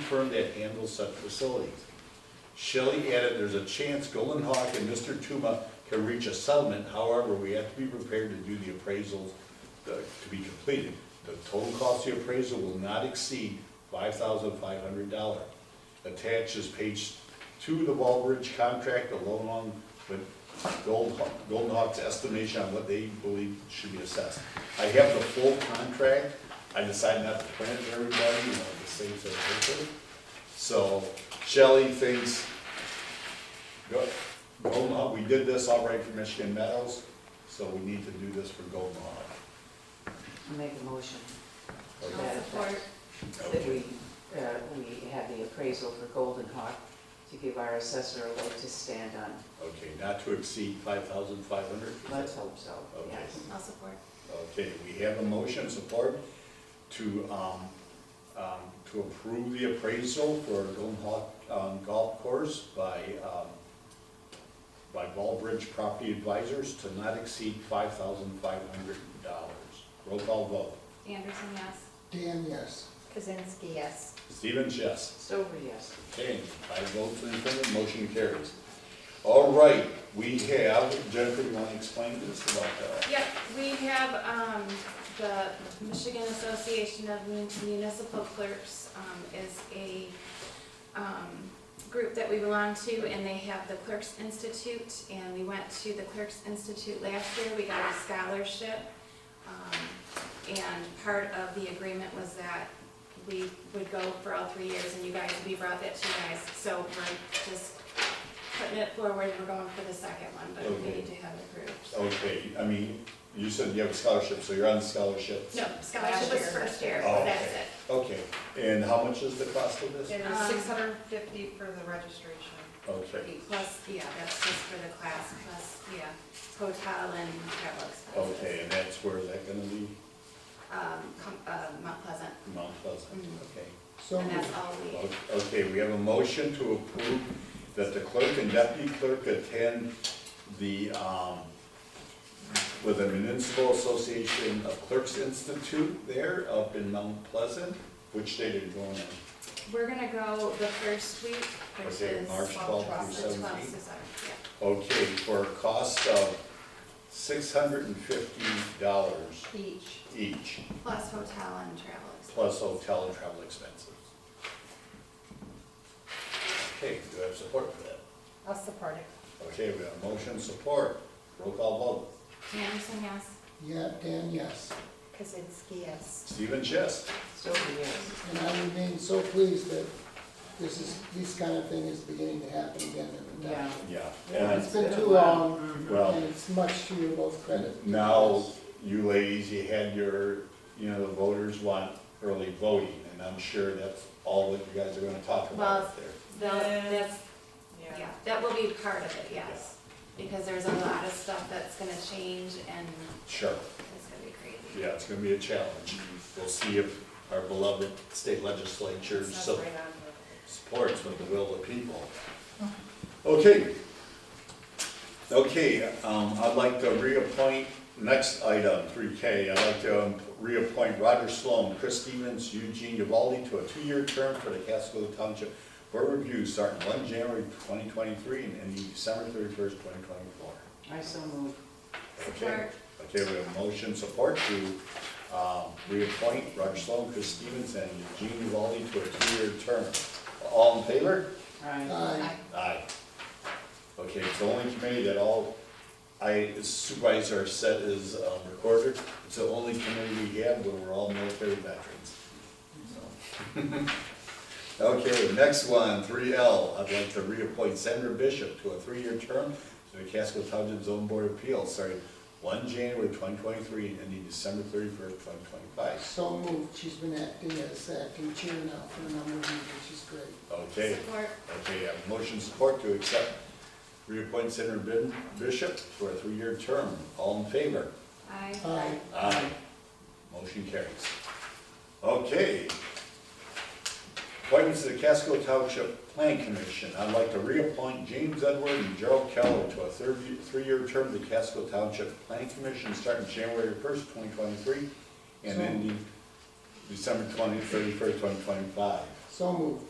firm that handles such facilities. Shelley added, there's a chance Golden Hawk and Mr. Tuma can reach a settlement, however, we have to be prepared to do the appraisals uh, to be completed. The total cost of the appraisal will not exceed five thousand five hundred dollar. Attached is page two of the Wall Ridge contract along with Gold Hawk, Golden Hawk's estimation on what they believe should be assessed. I have the full contract, I decided not to print it for everybody, you know, the same sort of paper. So Shelley thinks, go, Golden Hawk, we did this all right for Michigan Meadows, so we need to do this for Golden Hawk. I'll make a motion to Okay. that I'll support. effect, that we, uh, we have the appraisal for Golden Hawk to give our assessor a leg to stand on. Okay, not to exceed five thousand five hundred? Let's hope so, Okay. yes. I'll support. Okay, we have a motion support to, um, um, to approve the appraisal for Golden Hawk, um, Golf Course by, um, by Ballbridge Property Advisors to not exceed five thousand five hundred dollars. Roll call vote. Anderson, yes. Dan, yes. Kazinsky, yes. Stevens, yes. Stover, yes. Okay, five votes in affirmative, motion carries. All right, we have, Jennifer, you want to explain this about that? Yep, we have, um, the Michigan Association of Mun- Municipal Clerks, um, is a, um, group that we belong to, and they have the Clerks Institute, and we went to the Clerks Institute last year, we got a scholarship. Um, and part of the agreement was that we would go for all three years, and you guys, we brought that to you guys, so we're just putting it forward, we're going for the second one, but we Okay. need to have it approved. so. Okay, I mean, you said you have a scholarship, so you're on the scholarship. No, scholarship was Oh, first year, Oh, that's okay. it. Okay, and how much is the cost of this? It is Um, six hundred and fifty for the registration. Okay, Plus, yeah, that's just for the class, plus, yeah, hotel and travel expenses. okay, and that's where, is that gonna be? Um, com- uh, Mount Pleasant, Mount Pleasant, Mhm. okay. So, and that's all we, O- Okay, we have a motion to approve that the clerk and deputy clerk attend the, um, with the Municipal Association of Clerks Institute there up in Mount Pleasant. Which date are you going on? we're gonna go the first week, which Okay, is. March 12th through The 17th. twelfth is our, Okay, for a cost of six hundred and fifty dollars Each. each, yeah, plus hotel and travel expenses. plus hotel and travel expenses. Okay, do I have support for that? I'll support it. Okay, we have motion support. Roll call vote. Anderson, yes? yeah, Dan, yes. Kazinsky, yes. Stephen Chess. Stover, yes. And I remain so pleased that this is, this kind of thing is beginning to happen again in the town. Yeah. It's And been too long, Well- and it's much to your both credit. now, you ladies, you had your, you know, the voters want early voting, and I'm sure that's all that you guys are gonna talk about up there. Well, Yeah. that's, yeah, that will be part of it, yes, because there's a lot of stuff that's gonna change and Sure, it's gonna be crazy. yeah, it's gonna be a challenge. We'll see if our beloved state legislature so- supports with the will of the people. Oh. Okay. Okay, um, I'd like to reappoint, next item, three K, I'd like to um, reappoint Roger Sloan, Chris Stevens, Eugene Uvalde to a two-year term for the Casco Township Board of Review, starting one January twenty twenty-three and ending December thirty-first, twenty twenty-four. I so move. Okay, Support. okay, we have motion support to, um, reappoint Roger Sloan, Chris Stevens, and Eugene Uvalde to a two-year term. All in favor? Aye. Aye, Aye. Okay, it's the only committee that all, I supervisor said is um, recorder, it's the only committee we have where we're all military veterans. So. Okay, next one, three L, I'd like to reappoint Sandra Bishop to a three-year term to the Casco Township Zone Board of Appeals, starting one January twenty twenty-three and ending December thirty-first, twenty twenty-five. so moved, she's been acting as acting chair now for a number of years, which is great. Okay. Support. Okay, I have motion support to accept, reappoint Senator Bin- Bishop for a three-year term. All in favor? Aye. Aye. Aye. Motion carries. Okay. Appointments to the Casco Township Plan Commission. I'd like to reappoint James Edward and Gerald Keller to a third, three-year term to the Casco Township Plan Commission starting January first, twenty twenty-three and So- ending December twenty, thirty-first, twenty twenty-five. So moved,